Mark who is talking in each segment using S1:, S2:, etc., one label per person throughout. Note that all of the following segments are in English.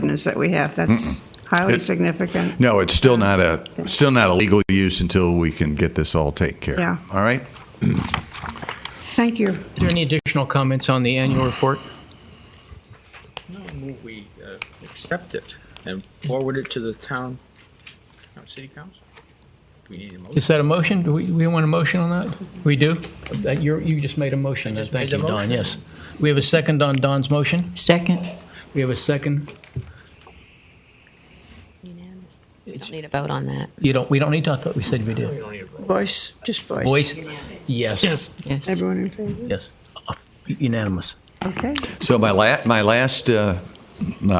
S1: ordinance that we have. That's highly
S2: It-
S1: significant.
S2: No, it's still not a, still not a legal use until we can get this all taken care of.
S1: Yeah.
S2: All right?
S1: Thank you.
S3: Is there any additional comments on the annual report?
S4: I move we uh, accept it and forward it to the town, town city council. Do we need a motion?
S3: Is that a motion? Do we, we want a motion on that? We do? Uh, You're, you just made a motion.
S4: just
S3: Thank
S4: made the
S3: you, Don,
S4: motion.
S3: yes. We have a second on Don's motion.
S5: Second.
S3: We have a second.
S6: Unanimous. We
S3: It's-
S6: don't need a vote on that.
S3: You don't, we don't need to, I thought we said we did.
S1: Voice, just voice.
S3: Voice? Yes. Yes.
S5: Yes.
S1: Everyone in favor?
S3: Yes. Unanimous.
S1: Okay.
S2: So my la, my last uh,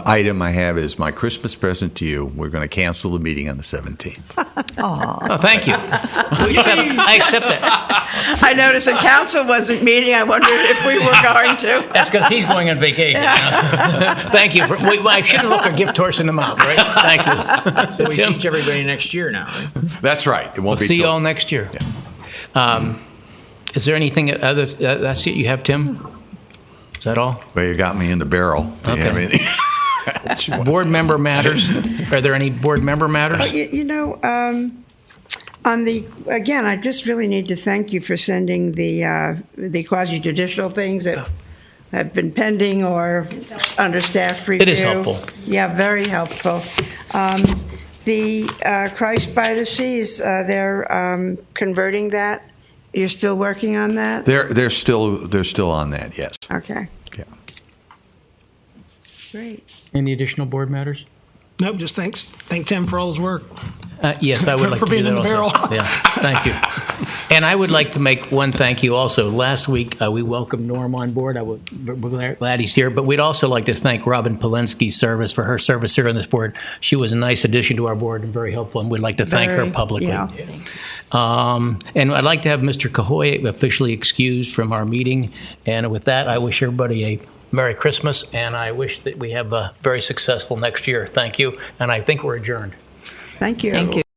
S2: item I have is my Christmas present to you. We're going to cancel the meeting on the 17th.
S3: Oh, thank you. We accept- I accept that.
S1: I noticed the council wasn't meeting. I wondered if we were going to.
S3: That's because he's going on vacation. Thank you. for- we- I shouldn't look a gift horse in the mouth, right? Thank you.
S4: So we see everybody next year now, right?
S2: That's right. It
S3: We'll
S2: won't be
S3: see you all
S2: till,
S3: next year. Um, Is there anything other, uh, that's it you have, Tim? Is that all?
S2: well, you got me in the barrel. Do you have
S3: Okay.
S2: anything?
S3: Board member matters? Are there any board member matters?
S1: You, you know, um, on the, again, I just really need to thank you for sending the, uh, the quasi judicial things that have been pending or under staff review.
S3: It is helpful.
S1: Yeah, very helpful. Um, the, uh, Christ by the Seas, uh, they're, um, converting that. You're still working on that?
S2: They're, they're still, they're still on that, yes.
S1: Okay.
S2: Yeah.
S1: Great.
S3: Any additional board matters?
S7: Nope, just thanks, thank Tim for all his work.
S3: Uh, Yes, I would
S7: For-
S3: like to
S7: for
S3: do
S7: being
S3: that
S7: in the
S3: also.
S7: barrel.
S3: Yeah, thank you. And I would like to make one thank you also. Last week, uh, we welcomed Norm on board. I would, we're glad- glad he's here, but we'd also like to thank Robin Polensky's service for her service here on this board. She was a nice addition to our board and very helpful, and we'd like to thank her
S1: Very-
S3: publicly.
S1: yeah.
S3: Um, And I'd like to have Mr. Cahoy officially excused from our meeting. And with that, I wish everybody a Merry Christmas, and I wish that we have a very successful next year. Thank you, and I think we're adjourned.
S1: Thank you.
S5: Thank you.